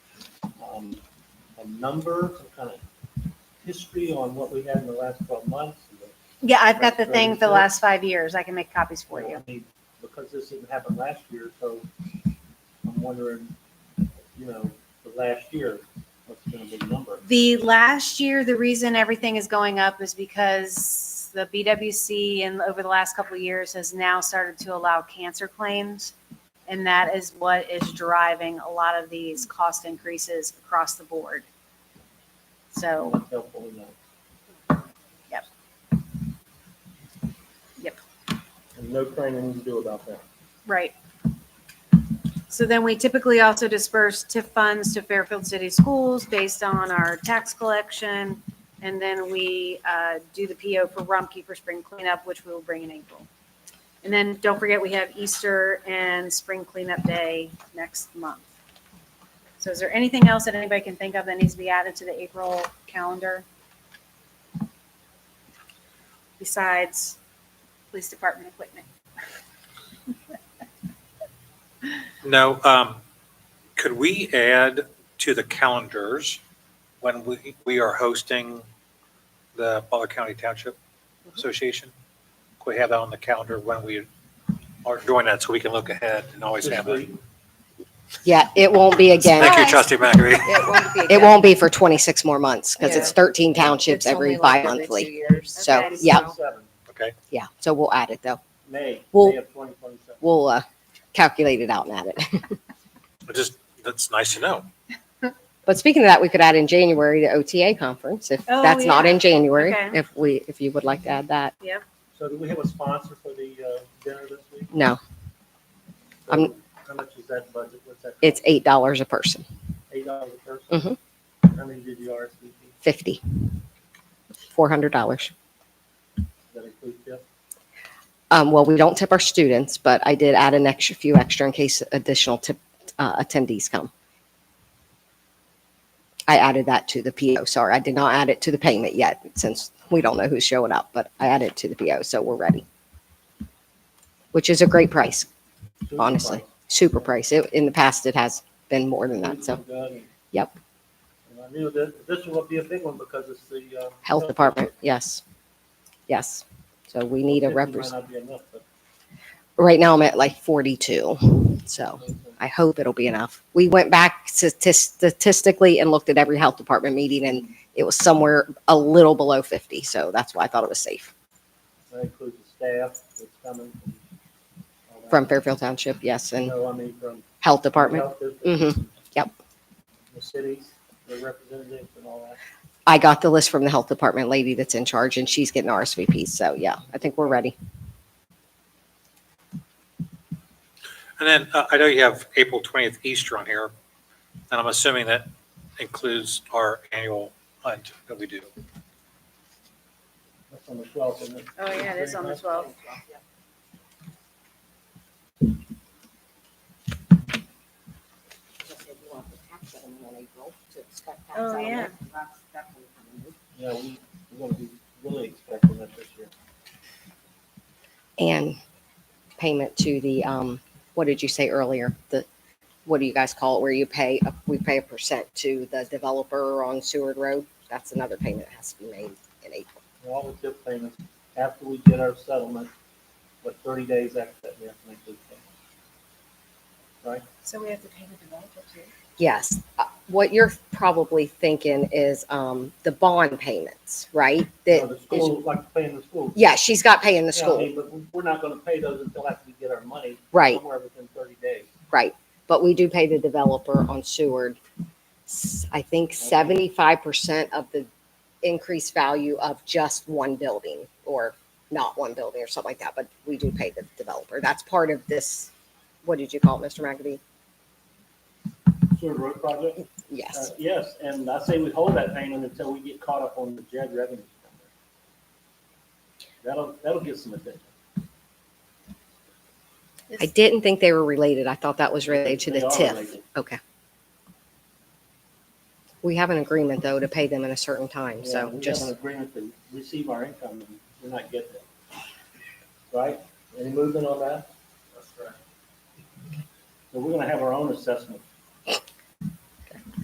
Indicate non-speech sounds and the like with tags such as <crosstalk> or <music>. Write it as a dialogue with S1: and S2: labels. S1: a number, some kind of history on what we had in the last twelve months?
S2: Yeah, I've got the
S1: Right,
S2: thing
S1: right,
S2: for the
S1: right.
S2: last five years. I can make copies for you.
S1: I mean, Because this didn't happen last year, so I'm wondering, you know, for last year, what's gonna be the number?
S2: The last year, the reason everything is going up is because the BWC and over the last couple of years has now started to allow cancer claims. And that is what is driving a lot of these cost increases across the board. So,
S1: That's helpful, you know.
S2: Oh. Yep. Yep.
S1: And no training we can do about that.
S2: right. So then we typically also disperse TIF funds to Fairfield City Schools based on our tax collection. And then we uh, do the PO for Rumpke for spring cleanup, which we will bring in April. And then don't forget, we have Easter and spring cleanup day next month. So is there anything else that anybody can think of that needs to be added to the April calendar? Besides police department equipment?
S3: No, um, could we add to the calendars when we, we are hosting the Butler County Township Association? Could we have that on the calendar when we are doing that so we can look ahead and always have
S1: This
S3: it?
S1: week,
S4: Yeah, it won't be again.
S3: Thank you, trustee McAfee.
S5: It won't be.
S4: It won't be for 26 more months because it's
S5: Yeah.
S4: 13 townships every bi-monthly. So,
S2: Okay.
S4: yeah,
S1: Twenty-seven,
S3: Okay,
S4: yeah. So we'll add it though.
S1: May,
S4: Well-
S1: May of twenty twenty-seven.
S4: We'll uh, calculate it out and add it. <laughs>
S3: It just, that's nice to know.
S4: But speaking of that, we could add in January the OTA conference if
S2: Oh,
S4: that's not
S2: yeah.
S4: in January,
S2: Okay.
S4: if we, if you would like to add that.
S1: So do we have a sponsor for the uh, dinner this week?
S4: No,
S1: So
S4: I'm-
S1: How much is that budget? What's that?
S4: it's $8 a person,
S1: Eight dollars a person?
S4: Mm-hmm.
S1: How many did you RSVP?
S4: 50, $400.
S1: That include tip?
S4: Um, well, we don't tip our students, but I did add an extra few extra in case additional tip uh, attendees come. I added that to the PO. Sorry, I did not add it to the payment yet since we don't know who's showing up, but I added it to the PO, so we're ready. Which is a great price,
S1: Food
S4: honestly.
S1: price.
S4: Super price. It, in the past, it has been more than that.
S1: Food's
S4: So,
S1: been good, and-
S4: yep,
S1: And I knew that this will be a big one because it's the. uh,
S4: health department. Yes. Yes. So we need
S1: Fifty
S4: a
S1: might
S4: representative.
S1: not be enough, but-
S4: Right now, I'm at like 42. So. I hope it'll be enough. We went back statis- statistically and looked at every health department meeting and it was somewhere a little below 50. So that's why I thought it was safe
S1: That includes the staff that's coming. from all that.
S4: from Fairfield Township. Yes. And
S1: No, I mean from.
S4: health department. Mm-hmm.
S1: health districts,
S4: Yep.
S1: The cities, the representatives and all that.
S4: I got the list from the health department lady that's in charge and she's getting RSVPs. So yeah, I think we're ready.
S3: And then uh, I know you have April 20th Easter on here, and I'm assuming that includes our annual hunt that we do.
S1: That's on the twelfth, isn't it?
S2: Oh, yeah, it is on the 12th. Oh, yeah.
S1: Yeah, we, we're gonna be really expecting that this year.
S4: And payment to the, um, what did you say earlier? The, what do you guys call it? Where you pay, a- we pay a percent to the developer on Seward Road. That's another payment that has to be made in April.
S1: And All the tip payments, after we get our settlement, but thirty days after that, we have to make those payments.
S2: So we have to pay the developer too?
S4: Yes. Uh, What you're probably thinking is um, the bond payments, right?
S1: Now, Oh, The
S4: That,
S1: school, like paying the school.
S4: yeah, she's got pay in the
S1: Yeah, I
S4: school,
S1: mean, But we- we're not gonna pay those until after we get our money.
S4: Right.
S1: Somewhere within thirty days.
S4: right? But we do pay the developer on Seward. s- I think seventy-five percent of the increased value of just one building or not one building or something like that, but we do pay the developer. That's part of this, what did you call it, Mr. McAfee?
S1: Seward Road project? Uh,
S4: Yes,
S1: Yes, and I say we hold that payment until we get caught up on the JED revenue. That'll, that'll get some attention.
S4: I didn't think they were related. I thought that was related to the
S1: They are
S4: TIF.
S1: related.
S4: Okay. We have an agreement, though, to pay them in a certain time,
S1: Yeah,
S4: so
S1: we have an
S4: just,
S1: agreement to receive our income and we're not getting it. Right? Any movement on that? That's right. So we're gonna have our own assessment